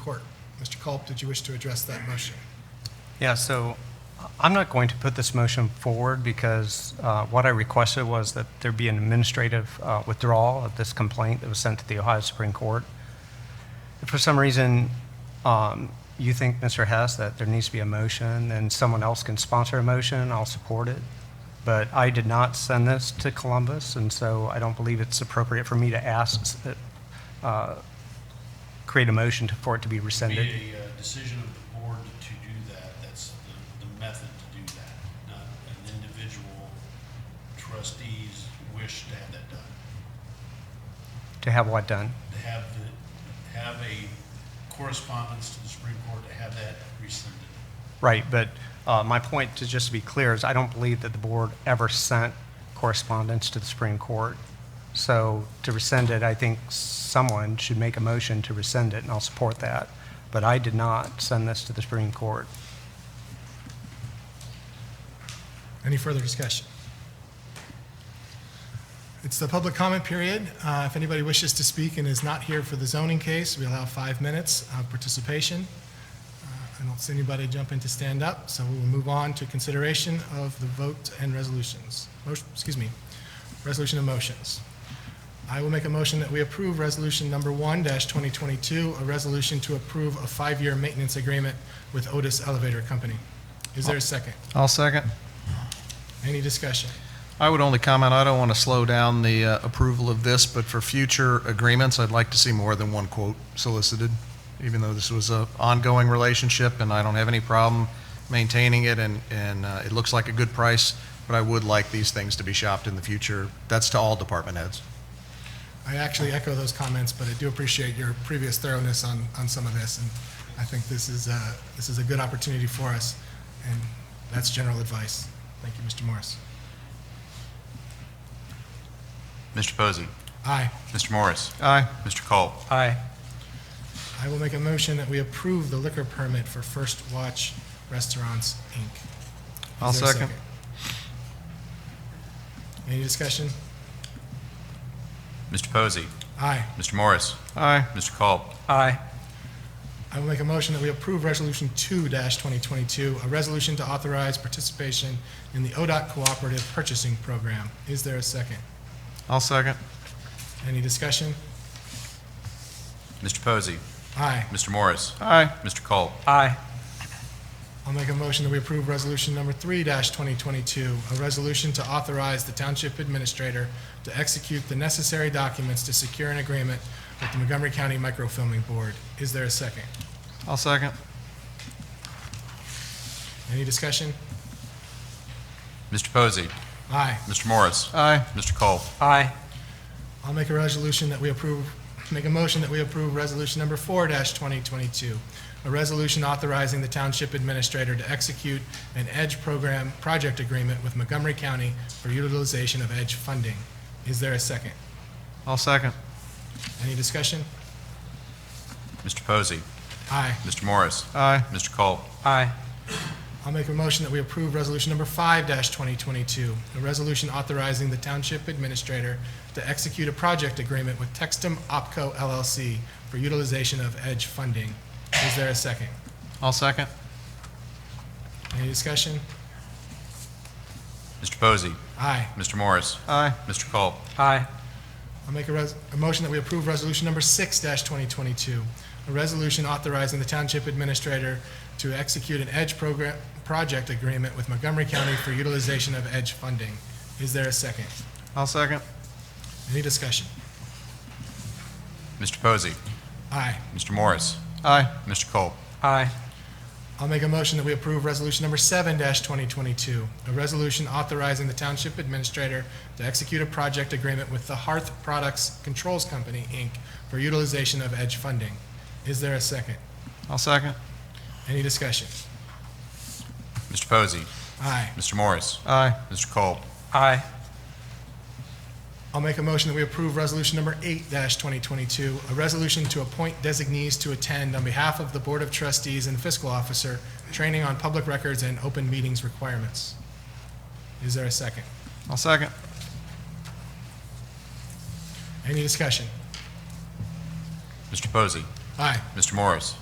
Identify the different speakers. Speaker 1: court. Mr. Culp, did you wish to address that motion?
Speaker 2: Yeah, so I'm not going to put this motion forward because uh, what I requested was that there be an administrative uh, withdrawal of this complaint that was sent to the Ohio Supreme Court. If for some reason um, you think, Mr. Hess, that there needs to be a motion, then someone else can sponsor a motion, I'll support it. But I did not send this to Columbus, and so I don't believe it's appropriate for me to ask, uh, create a motion to- for it to be
Speaker 3: be
Speaker 2: rescinded.
Speaker 3: a uh, decision of the board to do that, that's the, the method to do that, not an individual trustee's wish to have that done.
Speaker 2: To have what done?
Speaker 3: To have the, have a correspondence to the Supreme Court to have that rescinded.
Speaker 2: Right, but uh, my point, to just to be clear, is I don't believe that the board ever sent correspondence to the Supreme Court. So to rescind it, I think someone should make a motion to rescind it, and I'll support that. But I did not send this to the Supreme Court.
Speaker 1: Any further discussion? It's the public comment period. Uh, If anybody wishes to speak and is not here for the zoning case, we allow five minutes of participation. Uh, I don't see anybody jumping to stand up, so we will move on to consideration of the vote and resolutions. Motion- Excuse me, resolution of motions. I will make a motion that we approve Resolution Number 1-2022, a resolution to approve a five-year maintenance agreement with Otis Elevator Company. Is there a second?
Speaker 4: I'll second.
Speaker 1: Any discussion?
Speaker 4: I would only comment, I don't want to slow down the uh, approval of this, but for future agreements, I'd like to see more than one quote solicited, even though this was a ongoing relationship, and I don't have any problem maintaining it, and, and uh, it looks like a good price, but I would like these things to be shopped in the future. That's to all department heads.
Speaker 1: I actually echo those comments, but I do appreciate your previous thoroughness on, on some of this, and I think this is, uh, this is a good opportunity for us, and that's general advice. Thank you, Mr. Morris.
Speaker 5: Mr. Posey.
Speaker 1: Aye.
Speaker 5: Mr. Morris.
Speaker 4: Aye.
Speaker 5: Mr. Culp.
Speaker 2: Aye.
Speaker 1: I will make a motion that we approve the liquor permit for First Watch Restaurants, Inc. Is
Speaker 4: I'll
Speaker 1: there a
Speaker 4: second.
Speaker 1: Any discussion?
Speaker 5: Mr. Posey.
Speaker 1: Aye.
Speaker 5: Mr. Morris.
Speaker 4: Aye.
Speaker 5: Mr. Culp.
Speaker 2: Aye.
Speaker 1: I will make a motion that we approve Resolution 2-2022, a resolution to authorize participation in the ODOT Cooperative Purchasing Program. Is there a second?
Speaker 4: I'll second.
Speaker 1: Any discussion?
Speaker 5: Mr. Posey.
Speaker 1: Aye.
Speaker 5: Mr. Morris.
Speaker 4: Aye.
Speaker 5: Mr. Culp.
Speaker 2: Aye.
Speaker 1: I'll make a motion that we approve Resolution Number 3-2022, a resolution to authorize the Township Administrator to execute the necessary documents to secure an agreement with the Montgomery County Microfilming Board. Is there a second?
Speaker 4: I'll second.
Speaker 1: Any discussion?
Speaker 5: Mr. Posey.
Speaker 1: Aye.
Speaker 5: Mr. Morris.
Speaker 4: Aye.
Speaker 5: Mr. Culp.
Speaker 2: Aye.
Speaker 1: I'll make a resolution that we approve, make a motion that we approve Resolution Number 4-2022, a resolution authorizing the Township Administrator to execute an EDGE program project agreement with Montgomery County for utilization of EDGE funding. Is there a second?
Speaker 4: I'll second.
Speaker 1: Any discussion?
Speaker 5: Mr. Posey.
Speaker 1: Aye.
Speaker 5: Mr. Morris.
Speaker 4: Aye.
Speaker 5: Mr. Culp.
Speaker 2: Aye.
Speaker 1: I'll make a motion that we approve Resolution Number 5-2022, a resolution authorizing the Township Administrator to execute a project agreement with Textum Opco LLC for utilization of EDGE funding. Is there a second?
Speaker 4: I'll second.
Speaker 1: Any discussion?
Speaker 5: Mr. Posey.
Speaker 1: Aye.
Speaker 5: Mr. Morris.
Speaker 4: Aye.
Speaker 5: Mr. Culp.
Speaker 2: Aye.
Speaker 1: I'll make a res, a motion that we approve Resolution Number 6-2022, a resolution authorizing the Township Administrator to execute an EDGE program, project agreement with Montgomery County for utilization of EDGE funding. Is there a second?
Speaker 4: I'll second.
Speaker 1: Any discussion?
Speaker 5: Mr. Posey.
Speaker 1: Aye.
Speaker 5: Mr. Morris.
Speaker 4: Aye.
Speaker 5: Mr. Culp.
Speaker 2: Aye.
Speaker 1: I'll make a motion that we approve Resolution Number 7-2022, a resolution authorizing the Township Administrator to execute a project agreement with the Hearth Products Controls Company, Inc., for utilization of EDGE funding. Is there a second?
Speaker 4: I'll second.
Speaker 1: Any discussion?
Speaker 5: Mr. Posey.
Speaker 1: Aye.
Speaker 5: Mr. Morris.
Speaker 4: Aye.
Speaker 5: Mr. Culp.
Speaker 2: Aye.
Speaker 1: I'll make a motion that we approve Resolution Number 8-2022, a resolution to appoint designees to attend on behalf of the Board of Trustees and Fiscal Officer, training on public records and open meetings requirements. Is there a second?
Speaker 4: I'll second.
Speaker 1: Any discussion?
Speaker 5: Mr. Posey.
Speaker 1: Aye.
Speaker 5: Mr. Morris.